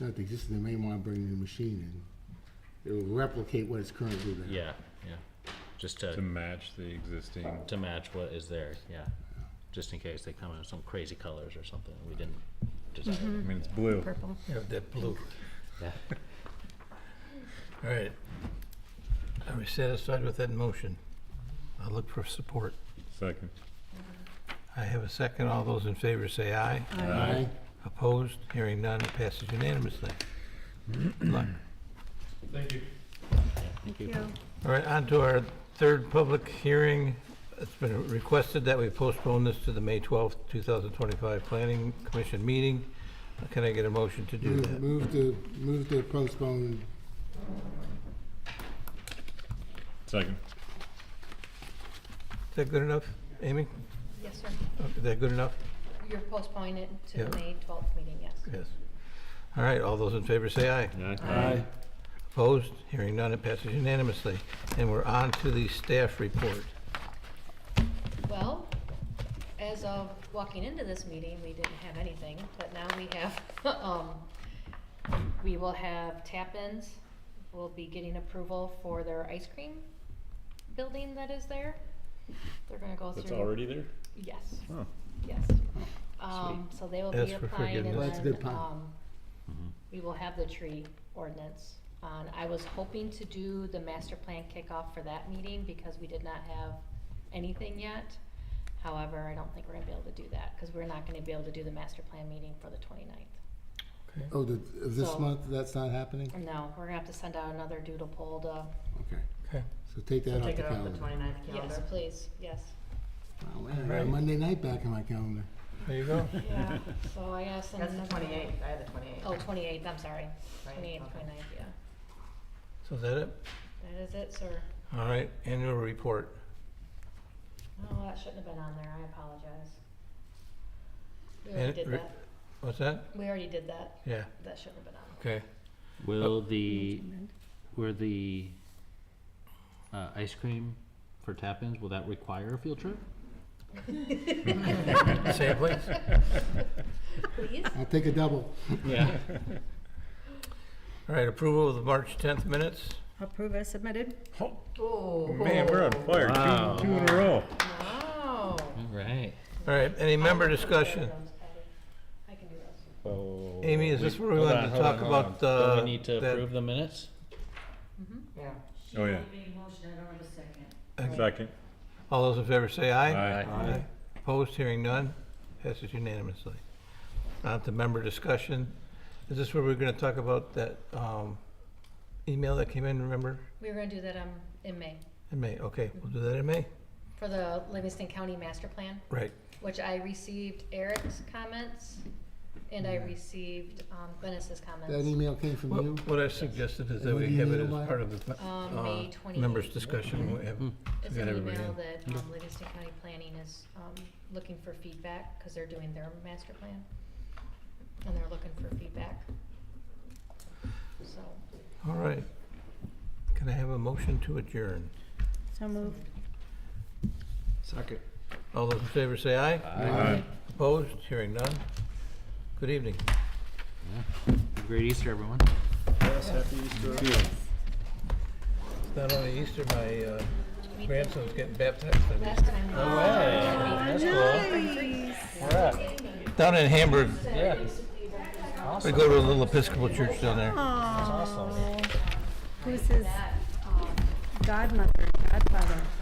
not the existing, they may want to bring the machine in. It will replicate what it's currently there. Yeah, yeah. Just to to, match the existing. to match what is there, yeah. Just in case they come in some crazy colors or something we didn't I desire. mean, it's blue. Purple. Yeah, that blue. Yeah. All right. Are we satisfied with that motion? I'll look for support. Second. I have a second. All those in favor say aye. Aye. Opposed? Hearing none, it passes unanimously. Good luck. Thank Thank you. you. All right, on to our third public hearing. It's been requested that we postpone this to the May 12th, 2025 Planning Commission meeting. Can I get a motion to do Move that? move to, move to postpone, Second. Is that good enough, Amy? Yes, sir. Is that good enough? You're postponing it to Yeah. the May 12th meeting, yes. Yes. All right, all those in favor say aye. Aye. Opposed? Hearing none, it passes unanimously. And we're on to the staff report. Well, as of walking into this meeting, we didn't have anything, but now we have, um, we will have tap-ins. We'll be getting approval for their ice cream building that is there. They're gonna go through. That's already there? Yes, Oh, yes. Um, so they will be Ask for applying and forgiveness. That's a good then, plan. um, we will have the tree ordinance on. I was hoping to do the master plan kickoff for that meeting because we did not have anything yet. However, I don't think we're gonna be able to do that, cause we're not gonna be able to do the master plan meeting for the 29th. oh, the, of this So- month, that's not happening? No, we're gonna have to send out another doodle poll to, Okay, Okay. so take that off Take the it off the calendar. 29th yes, calendar. please, yes. Wow, I got Right. Monday night back on my calendar. There you go. Yeah, so I gotta send. That's the another- 28th, I had the 28th. Oh, 28th, I'm sorry, Right, 28th, okay. 29th, yeah. So is that it? That is it, sir. All right, annual report. Oh, that shouldn't have been on there, I apologize. We And already it did re- that, What's that? we already did that, Yeah, that shouldn't have been on. okay. Will the, were the, uh, ice cream for tap-ins, will that require a field trip? Same place? Please? I'll take a double. Yeah. All right, approval of the March 10th minutes. Approve as submitted. Oh. man, we're on fire. Wow. Two, two in a row. Wow. All right. All right, any member discussion? I can do those. Oh. Amy, is this where we Hold wanted on, to hold talk on, hold on. about? Do uh, we need to that- approve the minutes? Mm-hmm. Yeah. Oh, yeah. Second. All those in favor say aye. Aye. Opposed, hearing none, passes unanimously. On to member discussion. Is this where we're gonna talk about that um, email that came in, remember? We were gonna do that, um, in May, In May, okay, we'll do that in May. for the Livingston County Master Plan, Right, which I received Eric's comments, and Mm-hmm. I received, um, Glennis's That comments, email came from What- you? what I suggested is that What we do you have it need as about it? part of the um, May uh, twenty-eighth. members' discussion. We have- Mm-hmm. It's Got an everybody email in. that, um, Livingston County Planning is, um, looking for feedback, cause they're doing their master plan. And they're looking for feedback. So, All right. Can I have a motion to adjourn? So moved. All those in favor say aye. Aye. Opposed, hearing none. Good evening. Great Easter, everyone. It's not only Easter, my uh, grandson's getting baptized. I think. last time. No Down in Hamburg. Yeah. We go to a little Episcopal church down there. Awesome. Who's his godmother, godfather?